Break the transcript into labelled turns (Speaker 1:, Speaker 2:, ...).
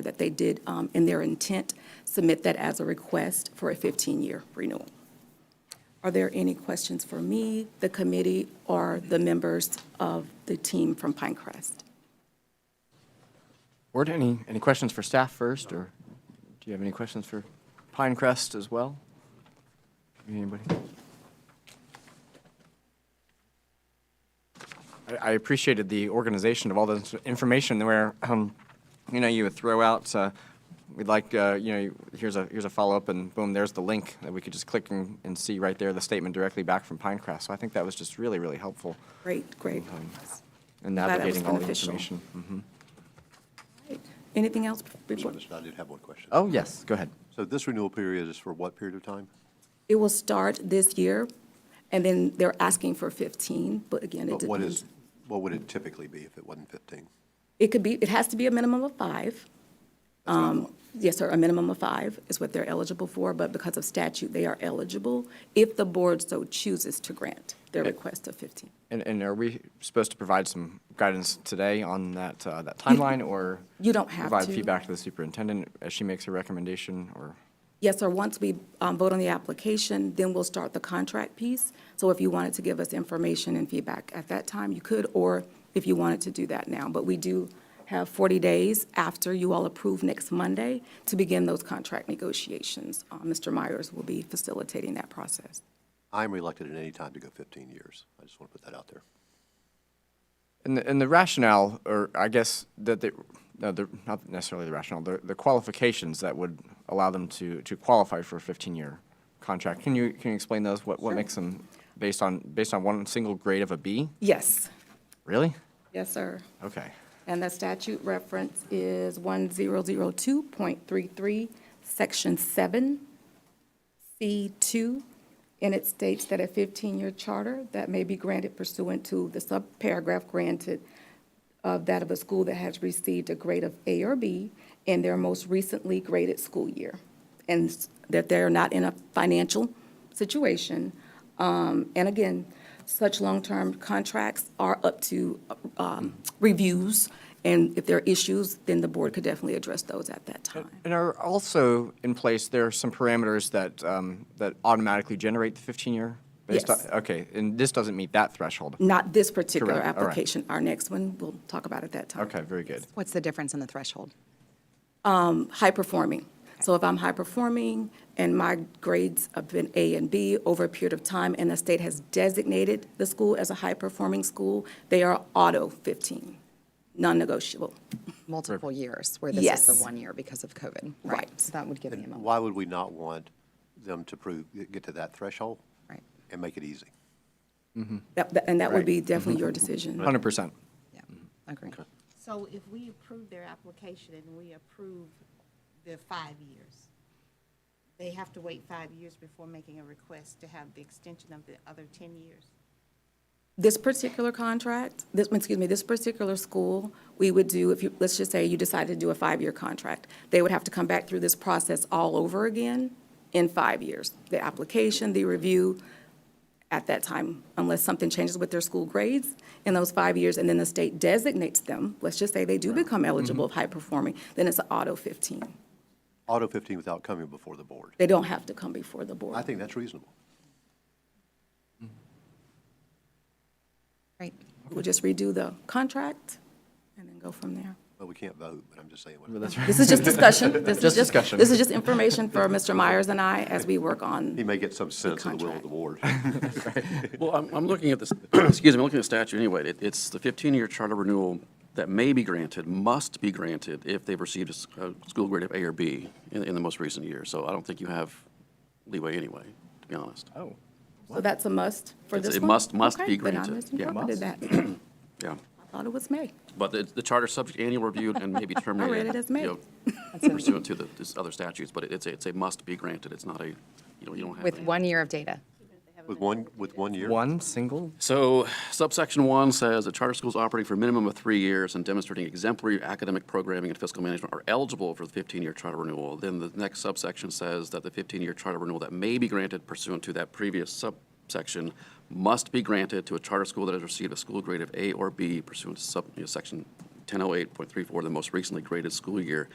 Speaker 1: that they did, um, in their intent, submit that as a request for a 15-year renewal. Are there any questions for me, the committee, or the members of the team from Pinecrest?
Speaker 2: Board, any, any questions for staff first, or do you have any questions for Pinecrest as well? Anybody? I, I appreciated the organization of all this information where, um, you know, you would throw out, uh, we'd like, uh, you know, here's a, here's a follow-up, and boom, there's the link that we could just click and, and see right there, the statement directly back from Pinecrest. So I think that was just really, really helpful
Speaker 1: Great, great.
Speaker 2: in
Speaker 1: Glad that was
Speaker 2: navigating all the
Speaker 1: beneficial.
Speaker 2: information. Mhm.
Speaker 1: Right. Anything else? before-
Speaker 3: Mr. Anderson, I did have one question.
Speaker 2: Oh, yes, go ahead.
Speaker 3: So this renewal period is for what period of time?
Speaker 1: It will start this year, and then they're asking for 15, but again, it
Speaker 3: But
Speaker 1: depends.
Speaker 3: what is, what would it typically be if it wasn't 15?
Speaker 1: It could be, it has to be a minimum of five. Um, Yes, sir, a minimum of five is what they're eligible for, but because of statute, they are eligible if the board so chooses to grant their request of 15.
Speaker 2: And, and are we supposed to provide some guidance today on that, uh, that timeline, or?
Speaker 1: you don't have to.
Speaker 2: Provide feedback to the superintendent as she makes her recommendation, or?
Speaker 1: Yes, sir, once we um, vote on the application, then we'll start the contract piece. So if you wanted to give us information and feedback at that time, you could, or if you wanted to do that now. But we do have 40 days after you all approve next Monday to begin those contract negotiations. Uh, Mr. Myers will be facilitating that process.
Speaker 3: I'm reluctant at any time to go 15 years. I just want to put that out there.
Speaker 2: And the, and the rationale, or I guess that the, no, the, not necessarily the rationale, the, the qualifications that would allow them to, to qualify for a fifteen-year contract. Can you, can you explain those? What, what makes them, based on, based on one single grade of a B?
Speaker 1: Yes.
Speaker 2: Really?
Speaker 1: Yes, sir.
Speaker 2: Okay.
Speaker 1: And the statute reference is 1002.33, Section 7, C2, and it states that a 15-year charter that may be granted pursuant to the subparagraph granted of that of a school that has received a grade of A or B in their most recently graded school year, and s- that they're not in a financial situation. Um, And again, such long-term contracts are up to um, reviews, and if there are issues, then the board could definitely address those at that time.
Speaker 2: And are also in place, there are some parameters that, um, that automatically generate the 15-year? based on-
Speaker 1: Yes. Mm.
Speaker 2: Okay, and this doesn't meet that threshold?
Speaker 1: Not this particular
Speaker 2: Correct, all right.
Speaker 1: application, our next one, we'll talk about at that time.
Speaker 2: Okay, very good.
Speaker 4: What's the difference in the threshold?
Speaker 1: High-performing. So if I'm high-performing and my grades have been A and B over a period of time, and the state has designated the school as a high-performing school, they are auto 15, non-negotiable.
Speaker 4: Multiple years, where this is
Speaker 1: Yes.
Speaker 4: the one year because of COVID, right?
Speaker 1: Right.
Speaker 4: So that would give the
Speaker 3: And
Speaker 4: amount,
Speaker 3: why would we not want them to prove, get to that threshold
Speaker 4: right?
Speaker 3: and make it easy?
Speaker 1: That- that- And that would be
Speaker 2: Right. Mm-hmm.
Speaker 1: definitely your decision.
Speaker 2: 100%.
Speaker 4: Yeah, agree.
Speaker 5: So if we approve their application and we approve the five years, they have to wait five years before making a request to have the extension of the other ten years?
Speaker 1: This particular contract, this, excuse me, this particular school, we would do, if you, let's just say you decided to do a five-year contract, they would have to come back through this process all over again in five years. The application, the review at that time, unless something changes with their school grades in those five years, and then the state designates them, let's just say they do become
Speaker 3: Mm-hmm.
Speaker 1: eligible of high-performing, then it's an auto 15.
Speaker 3: Auto 15 without coming before the board.
Speaker 1: They don't have to come before the
Speaker 3: I
Speaker 1: board.
Speaker 3: think that's reasonable.
Speaker 4: Great.
Speaker 1: We'll just redo the contract and then go from there.
Speaker 3: Well, we can't vote, but I'm just saying. what-
Speaker 1: This is just discussion. This is
Speaker 2: Just discussion.
Speaker 1: This is just information for Mr. Myers and I as we work
Speaker 3: He
Speaker 1: on,
Speaker 3: may get some sense of the will of the board.
Speaker 6: Well, I'm, I'm looking at this, excuse me, I'm looking at the statute anyway. It- It's the 15-year charter renewal that may be granted, must be granted if they've received a s- a school grade of A or B in, in the most recent year. So I don't think you have leeway anyway, to be honest.
Speaker 2: Oh.
Speaker 1: so that's a must for
Speaker 6: It's-
Speaker 1: this
Speaker 6: it
Speaker 1: one?
Speaker 6: must- must
Speaker 1: Okay,
Speaker 6: be
Speaker 1: then I
Speaker 6: granted. Yeah,
Speaker 1: misinterpreted that.
Speaker 6: Yeah.
Speaker 1: I thought it was May.
Speaker 6: But the, the charter's subject to annual review and may be terminated.
Speaker 1: it as may.
Speaker 6: you know, Pursuant to the, this other statutes, but it's a, it's a must be granted. It's not a, you know, you don't have.
Speaker 4: With
Speaker 6: a-
Speaker 4: one year of data.
Speaker 3: With one, with one year?
Speaker 2: One single?
Speaker 6: So subsection one says that charter schools operating for a minimum of three years and demonstrating exemplary academic programming and fiscal management are eligible for the 15-year charter renewal. Then the next subsection says that the 15-year charter renewal that may be granted pursuant to that previous subsection must be granted to a charter school that has received a school grade of oh A or B pursuant to sub, you know, section 1008.34, the most recently graded school year,